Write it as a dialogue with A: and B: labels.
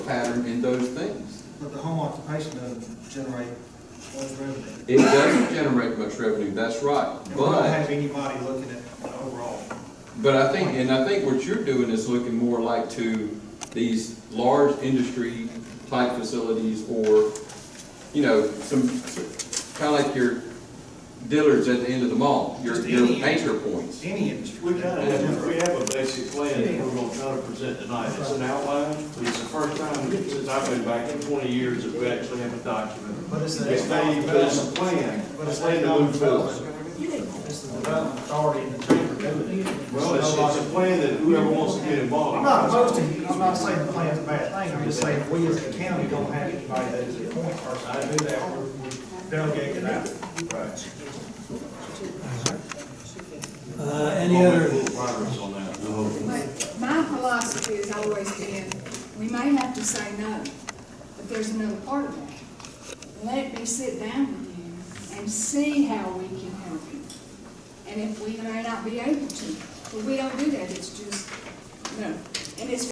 A: pattern in those things.
B: But the home occupation doesn't generate much revenue.
A: It doesn't generate much revenue, that's right,
B: And we don't
A: but,
B: have anybody looking at the overall.
A: but I think, and I think what you're doing is looking more like to these large industry type facilities or, you know, some, kind of like your dealers at the end of the mall, your,
B: Just
A: your
B: any-
A: anchor points.
B: Any industry.
C: We kind of have, we have a basic plan that we're gonna try to present tonight. It's an outline, but it's the first time since I've been back in twenty years that we actually have a document.
B: But it's the.
C: It's not, but it's a plan,
B: But
C: a
B: it's
C: plan
B: the
C: to move
B: development
C: forward.
B: authority. It's the development authority in the chamber doing it.
C: Well, it's, it's a plan that whoever wants to get involved.
B: I'm not opposed to, I'm not saying the plan's a bad thing, I'm just saying we as a county don't have anybody that is a point person. I do that, we're we're delegated out. Right.
D: Uh, any other,
C: Little progress on that.
E: But my philosophy has always been, we may have to say no, but there's another part of that. Let me sit down with you and see how we can help you. And if we may not be able to, but we don't do that, it's just, no. And it's